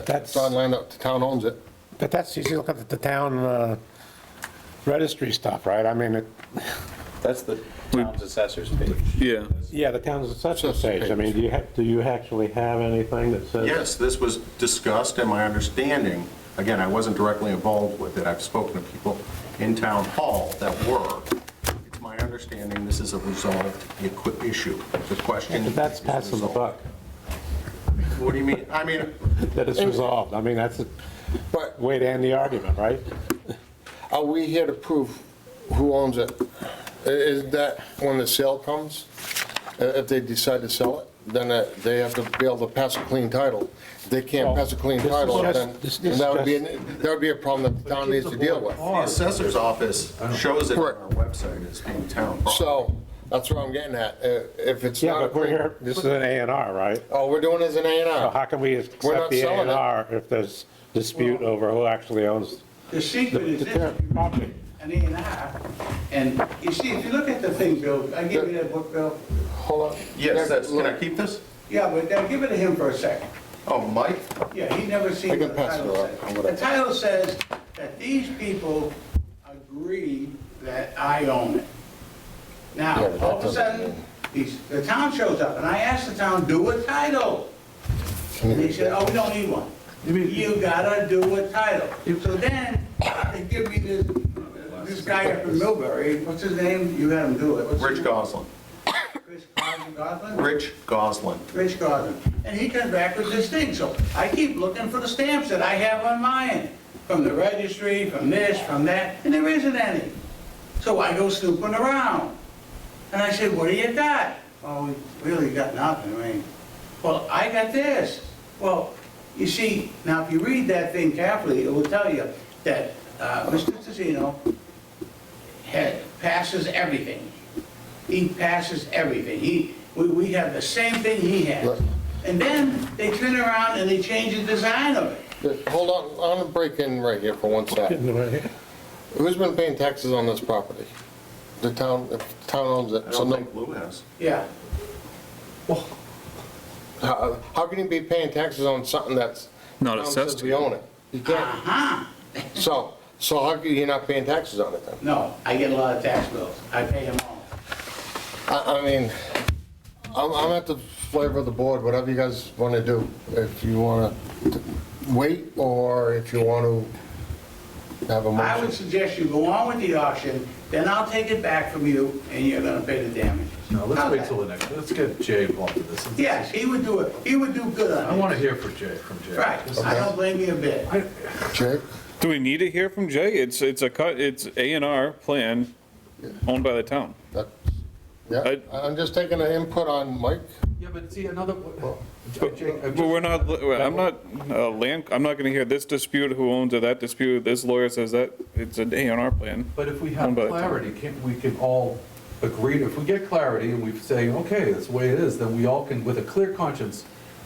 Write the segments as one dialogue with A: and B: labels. A: That's-
B: It's on land that the town owns it.
A: But that's, you see, look at the town uh, registry stuff, right? I mean, it,
C: That's the town's assessor's page.
D: Yeah,
A: yeah, the town's assessment
B: Assessment
A: page. I mean, do you have, do you actually have anything that says?
E: Yes, this was discussed, and my understanding, again, I wasn't directly involved with it, I've spoken to people in town hall that were. It's my understanding this is a resolved equi- issue, the question.
A: But that's
E: is
A: passing the buck,
E: resolved. What do you mean? I mean,
A: that it's resolved. I mean, that's a
B: But
A: way to end the argument, right?
B: are we here to prove who owns it? I- Is that when the sale comes? I- If they decide to sell it, then uh, they have to be able to pass a clean title. If they can't
A: Well,
B: pass a clean
A: this is
B: title,
A: just-
B: then
A: this- this
B: that would be,
A: is
B: an- that would be a problem that the town needs to deal with.
E: the assessor's office shows it on
B: Correct.
E: our website as being town property.
B: So that's what I'm getting at. Uh, If it's
A: Yeah,
B: not, a
A: but we're
B: clean-
A: here, Uh-huh. this is an A and R, right?
B: all we're doing is an A and
A: So
B: R.
A: how can we accept the A
B: selling
A: and
B: it.
A: R if there's dispute over who actually owns?
F: The secret is this, you read an A and R, and you see, if you look at the thing, Bill, I give you that book, Bill,
B: Hold on.
E: Yes, that's, can I
B: Look,
E: keep this?
F: yeah, but now give it to him for a second.
E: Oh, Mike?
F: Yeah, he never
B: I
F: seen
B: can
F: what the
B: pass it
F: title
B: around. I'm
F: says.
B: gonna-
F: The title says that these people agree that I own it. Now,
B: Yeah, but that
F: all of a
B: doesn't
F: sudden,
B: mean-
F: these, the town shows up, and I asked the town, do a title. And they said, oh, we don't need one. You gotta do a title. So then, they give me this, this guy up in Millbury, what's his name? You had him do it. What's his
E: Rich
F: name?
E: Goslin.
F: Chris Gosling- Gosling?
E: Rich Goslin.
F: Rich Garden, and he comes back with this thing, so I keep looking for the stamps that I have on mine, from the registry, from this, from that, and there isn't any. So I go snooping around, and I said, what do you got? Oh, we really got nothing, I mean, well, I got this. Well, you see, now if you read that thing carefully, it will tell you that uh, Mr. Tassino had, passes everything. He passes everything. He, we, we have the same thing he has. And then they turn around and they change the design of it.
B: Hold on, I'm gonna break in right here for one second. Who's been paying taxes on this property? The town, if the town owns
E: I
B: it, so
E: don't
B: no,
E: think Lou has.
F: Yeah.
B: how, how can you be paying taxes on something that's?
D: Not
B: town says
D: assessed.
B: We own it. You can't.
F: Uh-huh.
B: So, so how can you not paying taxes on it then?
F: No, I get a lot of tax bills. I pay them all.
B: I, I mean, I'm, I'm at the flavor of the board, whatever you guys wanna do. If you wanna t- wait, or if you wanna have a
F: I would
B: motion.
F: suggest you go on with the auction, then I'll take it back from you and you're gonna pay the damages.
G: No, let's
F: How's
G: wait
F: that?
G: till the next, let's get Jay involved in this.
F: Yes, he would do it. He would do good
G: I
F: on it.
G: want to hear from Jay, from Jay.
F: Right. I don't blame you a bit.
B: Jake?
D: do we need to hear from Jay? It's, it's a cut, it's A and R plan owned by the town.
B: That's- Yeah,
D: I-
B: I'm just taking an input on Mike.
G: Yeah, but see, another,
D: But but we're not, I'm not, uh, land, I'm not gonna hear this dispute, who owns it, that dispute, this lawyer says that, it's an A and R plan.
G: but if we have
D: Owned by the town.
G: clarity, can, we can all agree, if we get clarity and we say, okay, that's the way it is, then we all can, with a clear conscience,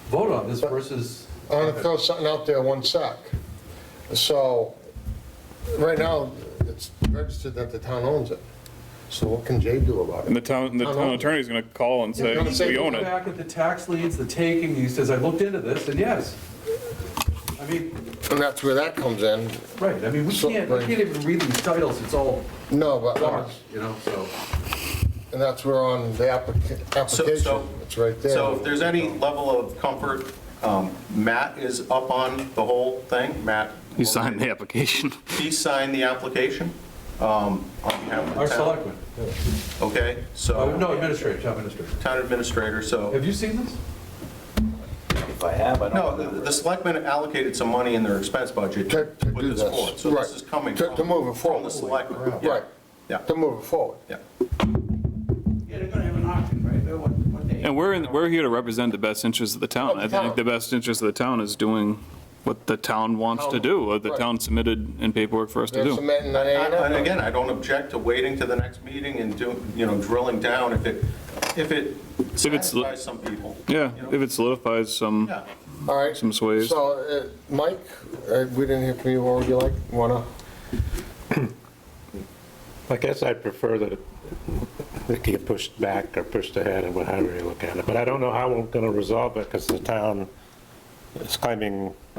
G: vote on this versus.
B: I'm gonna throw something out there, one sec. So, right now, it's registered that the town owns it. So what can Jay do about
D: And
B: it?
D: the town, the
B: Town
D: town
B: owns it.
D: attorney's gonna call and say,
B: gonna say
D: we
B: we
D: own it.
G: Back at the tax liens, the taking, he says, I looked into this, and yes. I mean,
B: And that's where that comes in.
G: right, I mean, we
B: So,
G: can't, we
B: right.
G: can't even read these titles, it's all
B: No,
G: dark,
B: but,
G: you know, so.
B: and that's where on the applica-
E: So- so-
B: application, it's right there.
E: So if there's any level of comfort, um, Matt is up on the whole thing, Matt.
D: He signed the application.
E: He signed the application um, on behalf of
G: Our
E: the town.
G: selectmen,
E: Okay,
G: Uh,
E: so,
G: no, administrator, town administrator.
E: town administrator, so,
G: Have you seen this?
C: If I have, I don't
E: no,
C: remember.
E: the the selectmen allocated some money in their expense budget
B: To-
E: to
B: to
E: put
B: do
E: this
B: this,
E: forward. So
B: right.
E: this is coming
B: To-
E: from.
B: to move it
E: From the
B: forward.
E: selectmen. Yeah,
B: Right,
E: Yeah,
B: to move it forward.
E: yeah.
F: Yeah, they're gonna have an auction, right? They're what, what day?
D: And we're, in- we're here to represent the best interests of the town. I
B: Of the
D: think
B: town.
D: the best interest of the town is doing what the town wants to do, what the
B: Right.
D: town submitted in paperwork for us to
B: There's
D: do.
B: cement and uh, an
E: And
B: A&R.
E: again, I don't object to waiting to the next meeting and do, you know, drilling down if it, if it
D: it's li-
E: satisfies some people.
D: Yeah,
E: you know?
D: if it solidifies some,
E: Yeah.
B: All right,
D: some sways.
B: so, uh, Mike, uh, we didn't hear from you, what would you like, wanna?
A: I guess I'd prefer that it it get pushed back or pushed ahead and however you look at it. But I don't know how we're going to resolve it because the town is claiming